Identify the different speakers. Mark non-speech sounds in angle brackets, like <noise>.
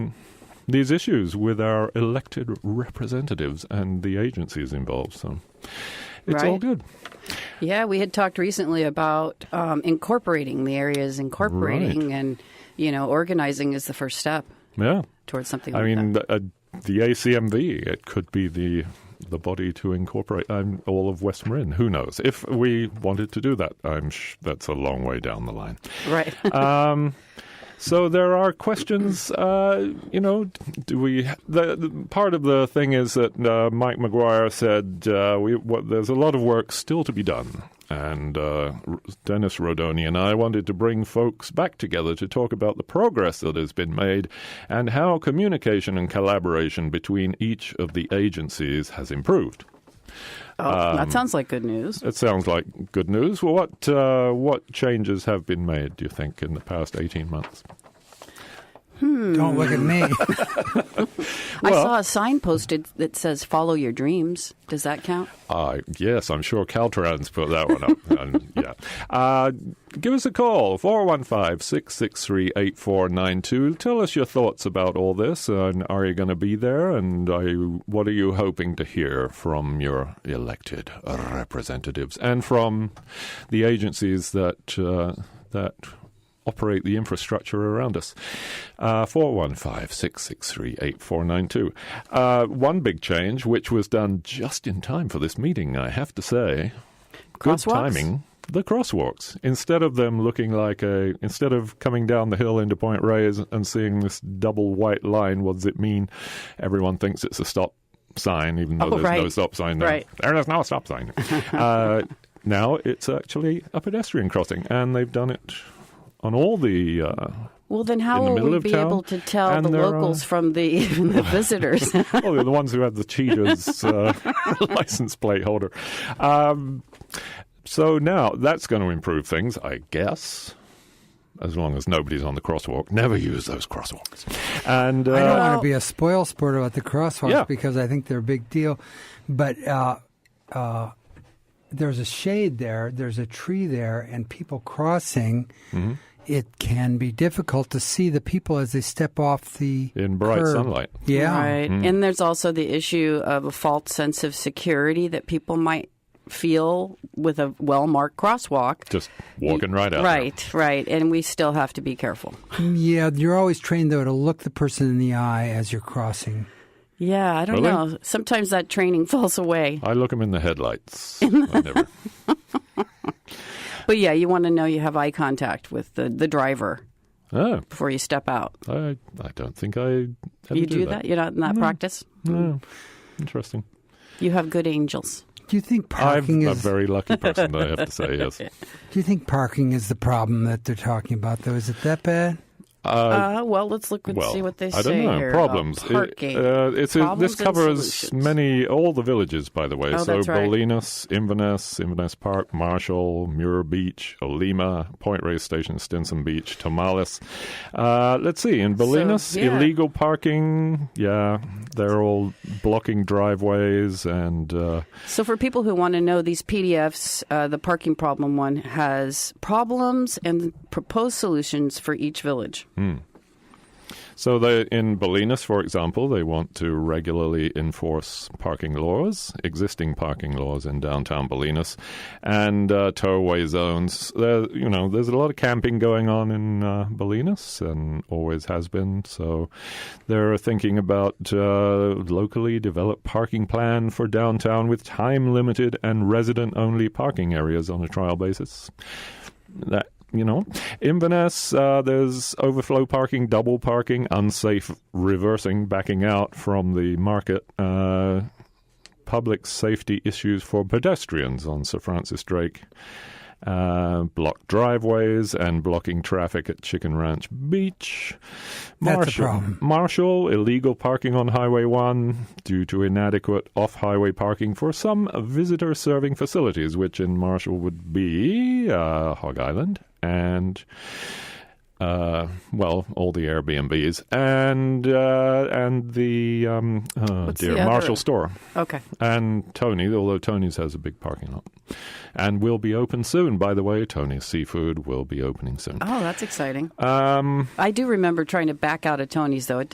Speaker 1: these issues with our elected representatives and the agencies involved. So it's all
Speaker 2: Right.
Speaker 1: good.
Speaker 2: Yeah, we had talked recently about um, incorporating the areas, incorporating and, you know, organizing is the first step
Speaker 1: Yeah.
Speaker 2: towards something
Speaker 1: I
Speaker 2: like
Speaker 1: mean,
Speaker 2: that.
Speaker 1: the, uh, the ACMV, it could be the the body to incorporate um, all of West Marin. Who knows? If we wanted to do that, I'm sh- that's a long way down the line.
Speaker 2: Right. <laughs>
Speaker 1: Um, so there are questions. Uh, you know, do we? The, the, part of the thing is that uh, Mike McGuire said uh, we, what, there's a lot of work still to be done. And uh, R- Dennis Rodoni and I wanted to bring folks back together to talk about the progress that has been made and how communication and collaboration between each of the agencies has improved. um,
Speaker 2: oh, that sounds like good news.
Speaker 1: It sounds like good news. Well, what uh, what changes have been made? Do you think in the past eighteen months?
Speaker 3: Don't look
Speaker 1: <laughs>
Speaker 3: at me. <laughs>
Speaker 2: I
Speaker 1: well-
Speaker 2: saw a sign posted that says "Follow your dreams." Does that count?
Speaker 1: Uh, yes, I'm sure Caltrans put that one up. and, yeah. Uh, give us a call, 415 663 8492. Tell us your thoughts about all this. And are you going to be there? And are you, what are you hoping to hear from your elected representatives and from the agencies that, uh, that operate the infrastructure around us? Uh, 415 663 8492. Uh, One big change, which was done just in time for this meeting, I have to say good
Speaker 2: Crosswalks?
Speaker 1: timing the crosswalks instead of them looking like a instead of coming down the hill into point reyes and seeing this double white line what does it mean everyone thinks it's a stop sign even though
Speaker 2: Oh,
Speaker 1: there's no
Speaker 2: right.
Speaker 1: stop sign there
Speaker 2: Right.
Speaker 1: there is no stop
Speaker 2: <laughs>
Speaker 1: sign uh, now it's actually a pedestrian crossing and they've done it on all the uh,
Speaker 2: Well, then how
Speaker 1: In the
Speaker 2: will
Speaker 1: middle
Speaker 2: we
Speaker 1: of
Speaker 2: be
Speaker 1: town,
Speaker 2: able to tell
Speaker 1: and
Speaker 2: the
Speaker 1: there are-
Speaker 2: locals from the, <laughs> the visitors?
Speaker 1: well, they're the ones who have the cheaters uh, <laughs> license plate holder um, so now that's going to improve things i guess as long as nobody's on the crosswalk never use those crosswalks and
Speaker 3: I
Speaker 1: uh,
Speaker 3: don't want
Speaker 2: Well-
Speaker 3: to be a spoil sport about the crosswalks
Speaker 1: Yeah.
Speaker 3: because I think they're a big deal. But uh, uh, there's a shade there, there's a tree there, and people crossing.
Speaker 1: Mm-hmm.
Speaker 3: It can be difficult to see the people as they step off the
Speaker 1: in bright
Speaker 3: curb.
Speaker 1: sunlight
Speaker 3: Yeah,
Speaker 2: Right.
Speaker 1: Mm-hmm.
Speaker 2: And there's also the issue of a false sense of security that people might feel with a well marked crosswalk.
Speaker 1: just walking right out there.
Speaker 2: Right, right. And we still have to be careful.
Speaker 3: yeah. You're always trained though to look the person in the eye as you're crossing.
Speaker 2: Yeah, I don't
Speaker 1: Really?
Speaker 2: know. Sometimes that training <laughs> falls away.
Speaker 1: i look him in the headlights I never-
Speaker 2: But yeah, you want to know you have eye contact with the, the driver
Speaker 1: oh
Speaker 2: before you step out.
Speaker 1: I, I don't think i ever
Speaker 2: you do, that? You're not in that practice?
Speaker 1: no. interesting
Speaker 2: You have good angels.
Speaker 3: Do you think
Speaker 1: i'm
Speaker 3: parking
Speaker 1: a
Speaker 3: is?
Speaker 1: very lucky person i have to say yes
Speaker 3: do you think parking is the problem that they're talking about though? Is it that bad?
Speaker 2: Uh, well, let's look and see what they
Speaker 1: I don't
Speaker 2: say
Speaker 1: know.
Speaker 2: here. about
Speaker 1: Problems. It-
Speaker 2: Parking.
Speaker 1: uh, it's
Speaker 2: Problems
Speaker 1: this
Speaker 2: and
Speaker 1: covers
Speaker 2: solutions.
Speaker 1: many all the villages, by the way.
Speaker 2: Oh,
Speaker 1: so
Speaker 2: that's right.
Speaker 1: Bolinas, Inverness, Inverness Park, Marshall, Muir Beach, Olima, Point Reyes Station, Stinson Beach, Tomales. Uh, let's see. In Bolinas,
Speaker 2: yeah.
Speaker 1: illegal parking. Yeah, they're all blocking driveways and. Uh,
Speaker 2: So, for people who want to know these PDFs, uh, the parking problem one has problems and proposed solutions for each village.
Speaker 1: Hmm. So they, in Bolinas, for example, they want to regularly enforce parking laws, existing parking laws in downtown Bolinas, and uh, towaway zones. There, you know, there's a lot of camping going on in uh, Bolinas, and always has been. So they're thinking about uh, locally developed parking plan for downtown with time limited and resident only parking areas on a trial basis that you know inverness uh, there's overflow parking double parking unsafe reversing backing out from the market uh, public safety issues for pedestrians on sir francis drake uh, blocked driveways and blocking traffic at Chicken Ranch Beach.
Speaker 3: That's a
Speaker 1: Marshall,
Speaker 3: problem.
Speaker 1: Marshall, illegal parking on Highway 1 due to inadequate off highway parking for some visitor serving facilities, which in Marshall would be uh, Hog Island and. Uh, well, all the Airbnbs and uh, and the um, oh
Speaker 2: What's
Speaker 1: dear
Speaker 2: the other-
Speaker 1: Marshall store
Speaker 2: Okay.
Speaker 1: and Tony, although Tony's has a big parking lot, and will be open soon. By the way, Tony's Seafood will be opening soon.
Speaker 2: Uh, Oh, that's exciting.
Speaker 1: Um,
Speaker 2: I do remember trying to back out of Tony's, though. It